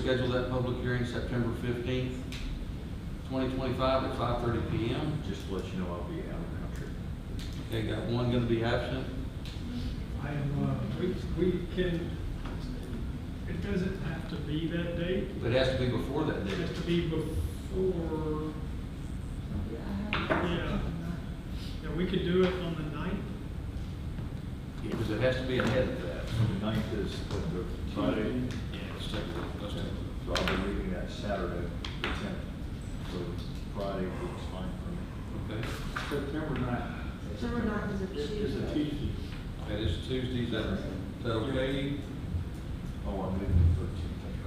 schedule that public hearing September fifteenth, twenty twenty-five at five thirty P M. Just to let you know, I'll be out of country. Okay, got one gonna be absent. I am, uh, we, we can, it doesn't have to be that date, But it has to be before that it date. has to be before, yeah. Yeah, we could do it on the ninth, Because it has to be ahead of that. The ninth is what, the Friday, Yeah, let's take a look, let's take a look. so I'll be leaving that Saturday, the tenth. So Friday looks fine for me. Okay, September ninth. September ninth is a It's a Tuesday. Tuesday. that is Tuesday, is that, is that okay? Oh, I'm leaving the thirteenth, that's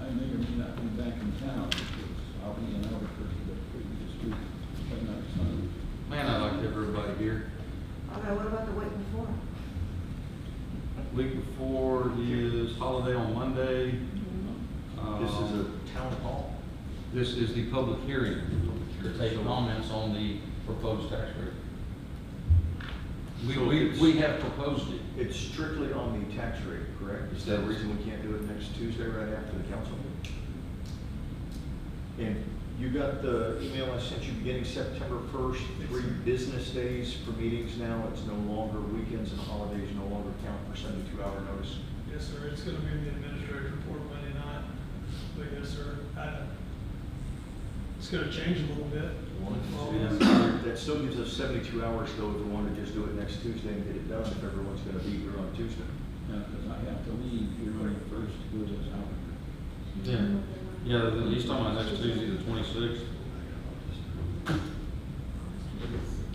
right. I may or may not be back in town because I'll be in Albuquerque the previous week, but not Sunday. Man, I liked everybody here. Okay, what about the week before? Week before is holiday on Monday. This is Uh, a town hall. This is the public hearing. hearing. Take comments on the proposed tax rate. We, So we, it's- we have proposed it. It's strictly on the tax rate, correct? Is that the reason we can't do it next Tuesday right after the council meeting? And you got the email I sent you beginning September first, three business days for meetings now. It's no longer weekends and holidays, no longer count for seventy-two hour notice. yes, sir, it's gonna be in the administrative report Monday night, but yes, sir, I, it's gonna change a little bit. Oh, That still gives us seventy-two hours though if we want to just do it next Tuesday and get it done if everyone's gonna be here on Tuesday. because I have to leave here on the first to go to Albuquerque. Yeah, yeah, he's talking about next Tuesday, the twenty-sixth.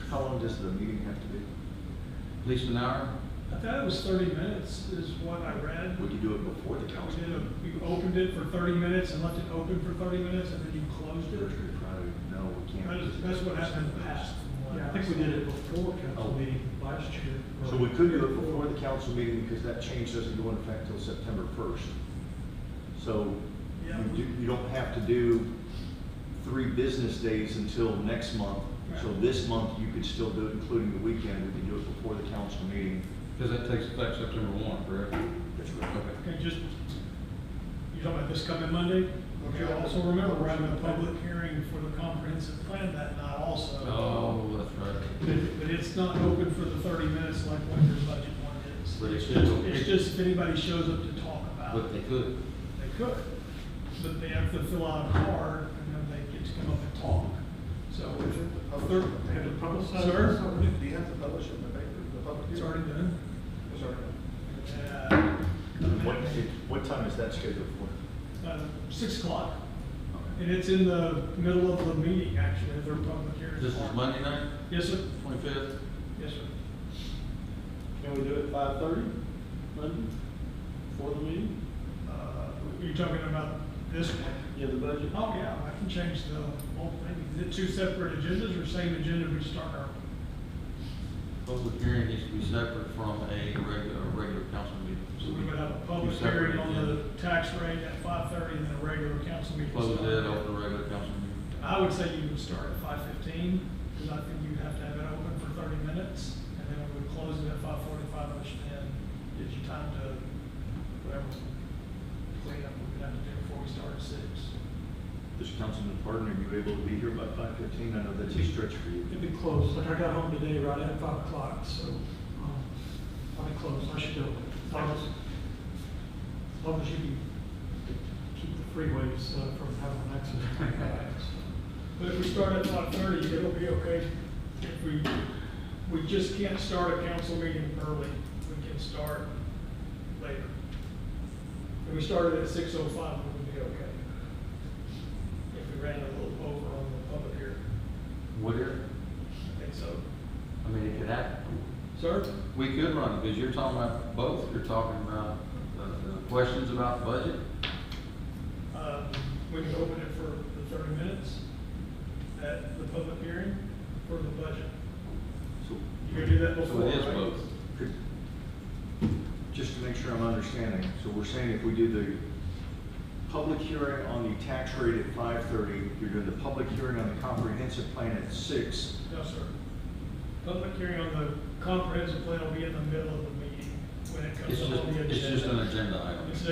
How long does the meeting have to be? At least an hour? I thought it was thirty minutes is what I read. Would you do it before the We council? did, a- meeting? you opened it for thirty minutes and left it open for thirty minutes and then you closed it. Thursday, Friday, no, we can't. That is, that's what happened in the past. Yeah, I think we did it before council meeting last year. So we could do it before the council meeting because that change doesn't go into effect till September first. So you Yeah. do, you don't have to do three business days until next month. So Right. this month, you could still do it, including the weekend, we could do it before the council meeting. Because that takes effect September one, correct? That's right. Okay. Okay, just, you talking about this coming Monday? Okay, also remember, we're having a public hearing for the comprehensive plan that night also. Oh, that's right. But, but it's not open for the thirty minutes like what your budget one is. But it should It's- go- It's just if anybody shows up to talk about it. But they could. They could, but they have to fill out a card and then they get to come up and talk. So Is it the public- They have to publicize it? Sir? Do you have to publish it in the paper, the public it's hearing? already done. It's already done. Uh, What, what time is that scheduled for? uh, Six o'clock. And it's in the middle of the meeting, actually, their public hearing. This is Monday night, Yes, sir. twenty-fifth? Yes, sir. Can we do it five thirty, Monday, before the meeting? Uh, You're talking about this one? Yeah, the budget. Oh, yeah, I can change the, well, maybe the two separate agendas or same agenda we start our. Public hearing needs to be separate from a regular, a regular council meeting. So we would have a public Two separate hearing on agendas. the tax rate at five thirty and then a regular council meeting. Close starting. that off the regular council meeting. I would say you would start at five fifteen, because I think you'd have to have it open for thirty minutes, and then we would close it at five forty-five, which then gives you time to, whatever, clean up we would have to do before we start at six. This councilman Pardon, are you able to be here by five fifteen? I know that's a stretch for you. It'd be closed, like I got home today right at five o'clock, so, um, I'll be closed, I should do it. As long as- as long as you can keep the freeways uh, from having an accident. But if we start at five thirty, it'll be okay. If we, we just can't start a council meeting early, we can start later. If we started at six oh five, it would be okay. If we ran a little over on the public hearing, Would it? I think so. I mean, it could happen. Sir? We could run it, because you're talking about both, you're talking about uh, the, the questions about budget, Um, We can open it for the thirty minutes at the public hearing for the budget. So You can do that so it is before, right? both. Could- Just to make sure I'm understanding, so we're saying if we do the public hearing on the tax rate at five thirty, you're doing the public hearing on the comprehensive plan at six, No, sir. Public hearing on the comprehensive plan will be in the middle of the meeting when it It's just, comes up on the agenda. it's just an agenda item. It's